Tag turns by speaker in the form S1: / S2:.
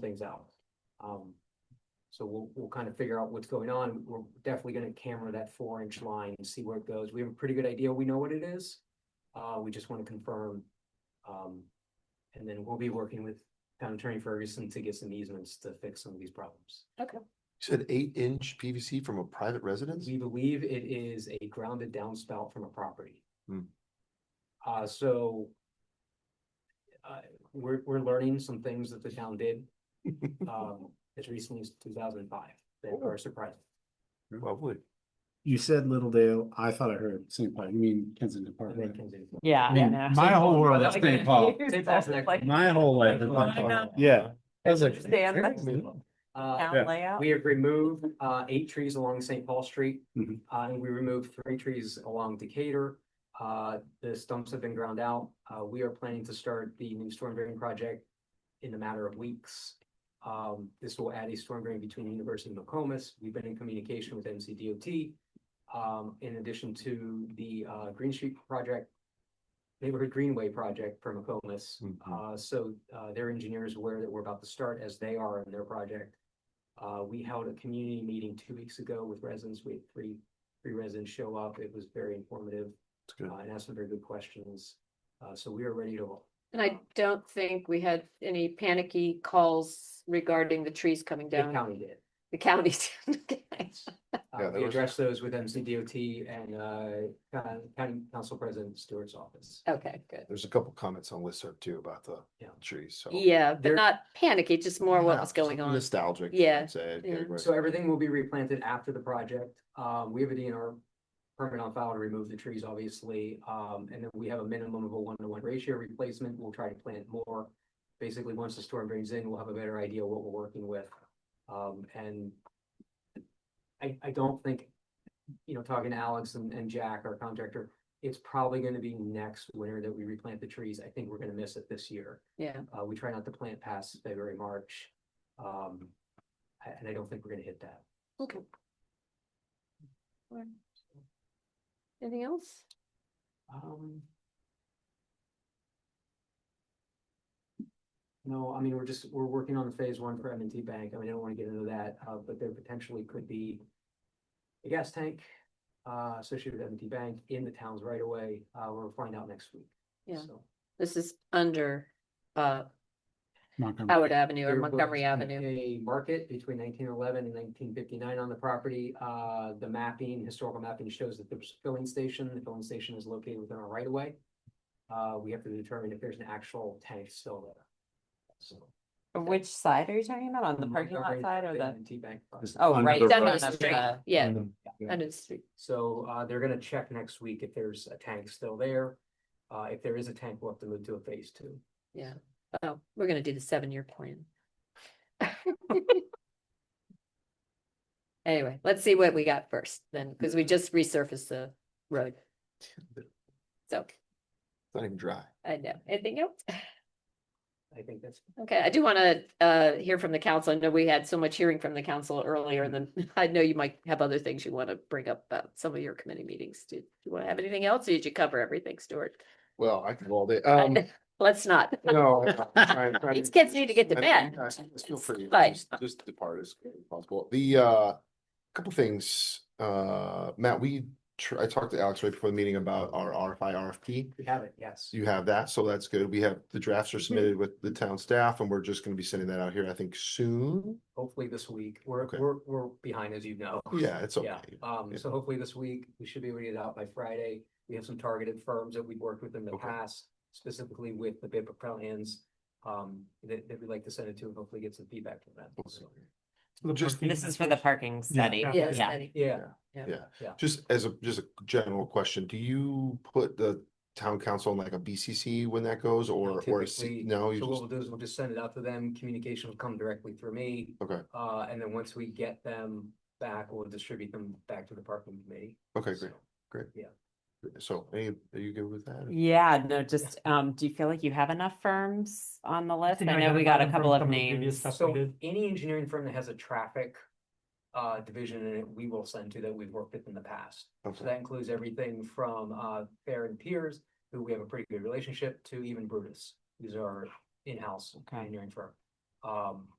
S1: things out. Um, so we'll, we'll kind of figure out what's going on. We're definitely gonna camera that four inch line and see where it goes. We have a pretty good idea. We know what it is. Uh, we just wanna confirm. Um, and then we'll be working with town attorney Ferguson to get some easements to fix some of these problems.
S2: said eight inch PVC from a private residence?
S1: We believe it is a grounded downspout from a property.
S2: Hmm.
S1: Uh, so. Uh, we're, we're learning some things that the town did, um, as recently as two thousand and five that
S3: Oh.
S1: are surprising.
S2: Well, would.
S3: You said Little Dale, I thought I heard St. Paul, you mean Kensington Park,
S1: that they
S3: right?
S1: can do.
S4: Yeah.
S3: I mean, my whole world is St. Paul,
S1: St. Paul's next.
S3: my whole life is
S1: Like,
S3: St.
S1: uh,
S3: Paul, yeah. I was like,
S4: Stand next
S3: "Hey,
S2: to
S1: Uh,
S3: Yeah.
S4: Town layout.
S1: we have removed, uh, eight trees along St. Paul Street.
S3: Mhm.
S1: Uh, and we removed three trees along Decatur. Uh, the stumps have been ground out. Uh, we are planning to start the new storm drain project in a matter of weeks. Um, this will add a storm drain between University and Nokomis. We've been in communication with MCDOT. Um, in addition to the, uh, Green Street project, neighborhood greenway project for Nokomis.
S2: Mhm.
S1: Uh, so, uh, their engineers aware that we're about to start as they are in their project. Uh, we held a community meeting two weeks ago with residents. We had three, three residents show up. It was very informative.
S2: It's good.
S1: uh, and asked some very good questions. Uh, so we are ready to roll.
S5: And I don't think we had any panicky calls regarding the trees coming
S1: The
S5: down,
S1: county did.
S5: the counties. Okay.
S2: Yeah,
S1: Uh,
S2: that
S1: we
S2: was-
S1: addressed those with MCDOT and, uh, coun- county council president Stewart's office.
S5: Okay, good.
S2: There's a couple comments on listserv too about the
S1: Yeah.
S2: trees, so.
S5: Yeah,
S2: There-
S5: but not panicky, just more what
S2: Yeah,
S5: was going
S2: something
S5: on.
S2: Nostalgic. I'd
S5: Yeah,
S2: say,
S5: yeah.
S2: okay, right.
S1: So everything will be replanted after the project. Um, we have a DNR permit on file to remove the trees, obviously. Um, and then we have a minimum of a one-to-one ratio replacement. We'll try to plant more. Basically, once the storm brings in, we'll have a better idea what we're working with. Um, and I, I don't think, you know, talking to Alex and, and Jack, our contractor, it's probably gonna be next winter that we replant the trees. I think we're gonna miss it this year.
S5: Yeah,
S1: Uh, we try not to plant past February, March. Um, a- and I don't think we're gonna hit that.
S5: okay. Alright. Anything else?
S1: Um. No, I mean, we're just, we're working on phase one for M and T Bank. I mean, I don't wanna get into that, uh, but there potentially could be. A gas tank, uh, associated with M and T Bank in the towns right away. Uh, we'll find out next week.
S5: Yeah.
S1: So,
S5: This is under uh
S3: Montgomery.
S5: Howard Avenue or
S1: there
S5: Montgomery
S1: was
S5: Avenue.
S1: A market between nineteen eleven and nineteen fifty-nine on the property. Uh, the mapping, historical mapping shows that there's a filling station. The filling station is located within our right of way. Uh, we have to determine if there's an actual tank still there. So. um,
S4: Which side are you talking about?
S1: Mm,
S4: On the parking lot
S1: Montgomery
S4: side or the?
S1: and Tea Bank property.
S3: Just
S4: Oh,
S3: under
S4: right.
S3: the
S4: in
S5: Down
S3: road.
S5: on
S4: front
S5: the
S4: of
S5: street,
S4: the-
S5: yeah,
S3: Under-
S5: under the street.
S1: So, uh, they're gonna check next week if there's a tank still there. Uh, if there is a tank, we'll have to move to a phase two.
S5: Oh, we're gonna do the seven-year plan. Anyway, let's see what we got first then, because we just resurfaced the road. So,
S2: It's Not even dry.
S5: I know, anything else?
S1: I think that's,
S5: Okay, I do want to uh hear from the council. I know we had so much hearing from the council earlier and then I know you might have other things you want to bring up about some of your committee meetings. Do you want to have anything else or did you cover everything, Stuart?
S2: Well, I could all day, um,
S5: Let's not.
S2: no. I- I- I-
S5: These kids need to get to
S2: I-
S5: bed.
S2: I- I Feel free,
S5: But-
S2: just, just depart as quickly as possible. The, uh, couple things, uh, Matt, we, tr- I talked to Alex right before the meeting about our RFI, RFP.
S1: we have it, yes.
S2: You have that, so that's good. We have, the drafts are
S1: Mm-hmm.
S2: submitted with the town staff and we're just gonna be sending that out here, I think, soon.
S1: Hopefully this week. We're,
S2: Okay.
S1: we're, we're behind, as you know.
S2: Yeah, it's okay.
S1: Yeah, um,
S2: Yeah.
S1: so hopefully this week, we should be ready to out by Friday. We have some targeted firms that we've worked with in the
S2: Okay.
S1: past, specifically with the bid plans. Um, that, that we'd like to send it to and hopefully get some feedback from them. So,
S2: Just,
S4: This is for the parking study.
S5: Yeah,
S4: Yeah.
S5: Eddie.
S1: Yeah,
S2: just as a, just a general question, do you put the town council in like a BCC when that goes or, or a
S1: typically-
S2: C? No, you
S1: so what
S2: just,
S1: we'll do is we'll just send it out to them. Communication will come directly through me.
S2: okay,
S1: Uh, and then once we get them back, we'll distribute them back to the parking committee.
S2: okay, great.
S1: So,
S2: So, any- are you good with that?
S4: Yeah, no, just, um, do you feel like you have enough firms on the list?
S6: think
S4: I
S6: I
S4: know
S6: have
S4: we got a
S6: them from
S4: couple of
S6: some of the previous
S4: names.
S6: stuff.
S1: So
S6: we did.
S1: any engineering firm that has a traffic uh, division in it, we will send to that we've worked with in the past. So
S2: Okay.
S1: that includes everything from uh, Fair and Piers, who we have a pretty good relationship, to even Brutus, who's our in-house
S4: Okay.
S1: engineering firm. Um,